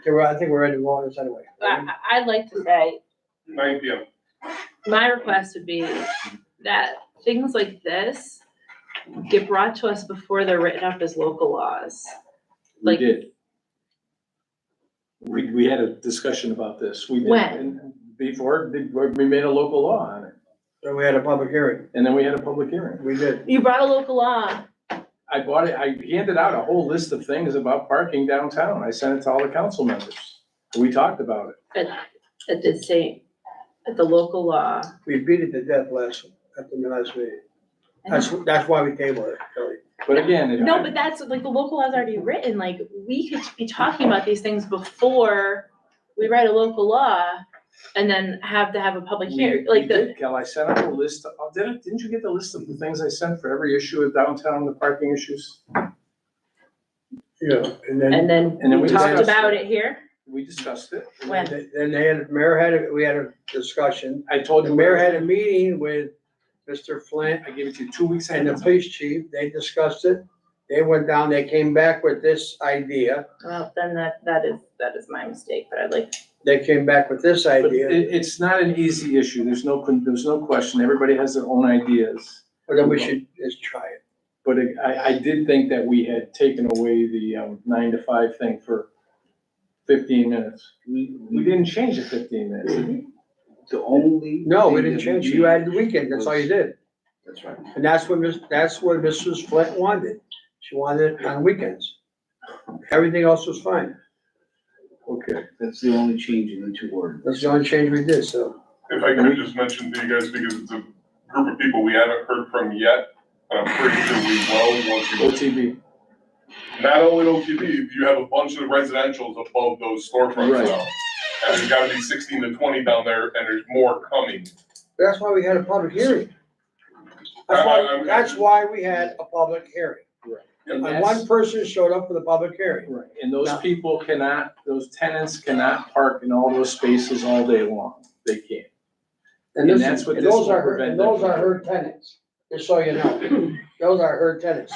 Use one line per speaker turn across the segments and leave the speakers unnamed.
Okay, well, I think we're ready to go on this anyway.
I, I- I'd like to say,
Nine P M.
my request would be that things like this get brought to us before they're written up as local laws.
We
Like-
did. We, we had a discussion about this. We did.
When?
and Before, the- we made a local law on it,
So we had a public hearing.
and then we had a public hearing.
We did.
You brought a local law.
I bought it, I handed out a whole list of things about parking downtown. I sent it to all the council members. We talked about it.
It did say, that the local law.
We beat it to death last, at the last meeting. That's, that's why we tabled it, Kelly.
But again, it-
No, but that's, like, the local law's already written, like, we could be talking about these things before we write a local law and then have to have a public hearing,
We- we
like the.
did, Kel, I sent out a list, of- oh, didn't, didn't you get the list of the things I sent for every issue of downtown, the parking issues?
Yeah, and then,
And then
And then
we
we
talked
discussed
about
it.
it here.
We discussed it.
When?
then they had, mayor had, a- we had a discussion.
I told
The
you.
mayor had a meeting with Mr. Flint
I gave it to you two weeks
and
ahead
the
of time.
police chief. They discussed it. They went down, they came back with this idea.
Well, then that, that is, that is my mistake, but I'd like,
They came back with this
But
idea,
it, it's not an easy issue. There's no, con- there's no question. Everybody has their own ideas.
but then we should just try it.
But it- I, I did think that we had taken away the um, nine to five thing for fifteen minutes. We, we didn't change the fifteen minutes. did we?
The only.
No, we
thing
didn't
that
change it. You
changed-
added the weekend. That's all you did.
That's right.
And that's what, Miss- that's what Mrs. Flint wanted. She wanted it on weekends. Everything else was fine.
Okay.
That's the only change in the two ordinance.
That's the only change we did, so.
If I could just mention to you guys, because it's a group of people we haven't heard from yet, and I'm pretty sure we will once we go.
OTB,
Not only OTB, you have a bunch of residentials above those storefronts
Right.
now. And there's gotta be sixteen to twenty down there, and there's more coming.
That's why we had a public hearing. That's why, that's why we had a public hearing.
and
And
that's,
one person showed up for the public hearing.
right. and those people cannot, those tenants cannot park in all those spaces all day long. They can't.
And this,
And that's what
and
this
those
will
are, her-
prevent
and
them
those
from
are her tenants, just so you know. Those are her tenants.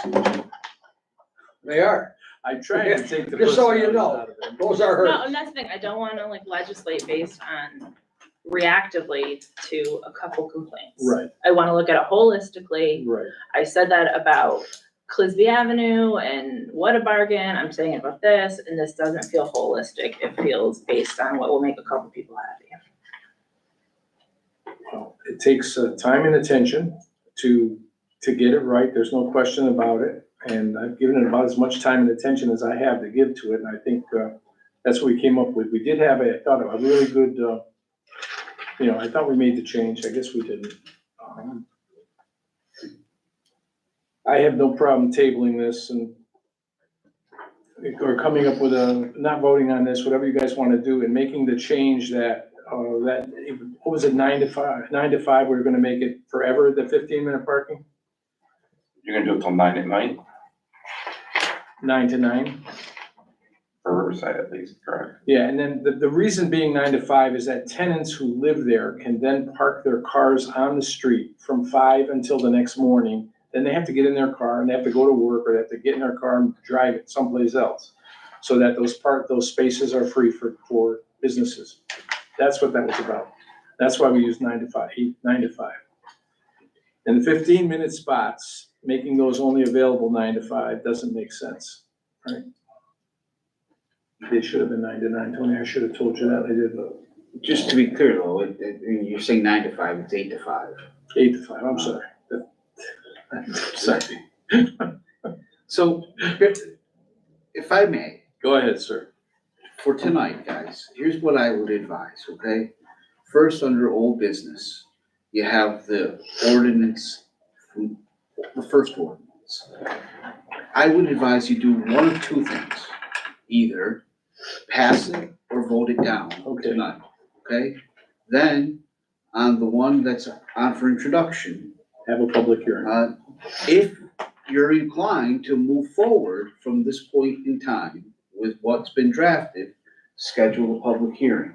They are.
I tried to take the
Just so you
personalities
know.
out of it.
Those are
no,
hers.
and that's the thing, I don't wanna like legislate based on reactively to a couple complaints.
Right,
I wanna look at it holistically.
right.
I said that about Clisby Avenue and what a bargain, I'm saying it about this, and this doesn't feel holistic. It feels based on what will make a couple people happy.
Well, It takes uh, time and attention to, to get it right, there's no question about it. And I've given it about as much time and attention as I have to give to it, and I think uh, that's what we came up with. We did have, a- I thought, a really good, uh, you know, I thought we made the change, I guess we didn't. Um, I have no problem tabling this and, or coming up with a, not voting on this, whatever you guys want to do, and making the change that uh, that, what was it, nine to five, nine to five, we were gonna make it forever, the fifteen minute parking?
You're gonna do it till nine at night,
Nine to nine?
for Riverside at least, correct?
Yeah, and then the, the reason being nine to five is that tenants who live there can then park their cars on the street from five until the next morning. Then they have to get in their car and they have to go to work or they have to get in their car and drive it someplace else. So that those part, those spaces are free for, for businesses. That's what that was about. That's why we use nine to five, eight, nine to five. And the fifteen minute spots, making those only available nine to five doesn't make sense. They should have been nine to nine. Tony, I should have told you that. I did, uh,
Just to be clear though, it, it, you're saying nine to five, it's eight to five.
Eight to five, I'm sorry. I'm Sorry.
So, if I may,
Go ahead, sir.
for tonight, guys, here's what I would advise, okay? First, under old business, you have the ordinance, from- the first ordinance. I would advise you do one of two things, either pass it or vote it down
Okay.
tonight, okay? Then, on the one that's on for introduction,
Have a public hearing.
uh, If you're inclined to move forward from this point in time with what's been drafted, schedule a public hearing.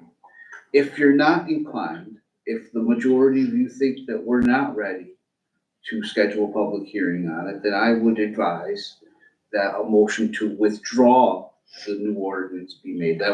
If you're not inclined, if the majority of you think that we're not ready to schedule a public hearing on it, then I would advise that a motion to withdraw the new ordinance be made. That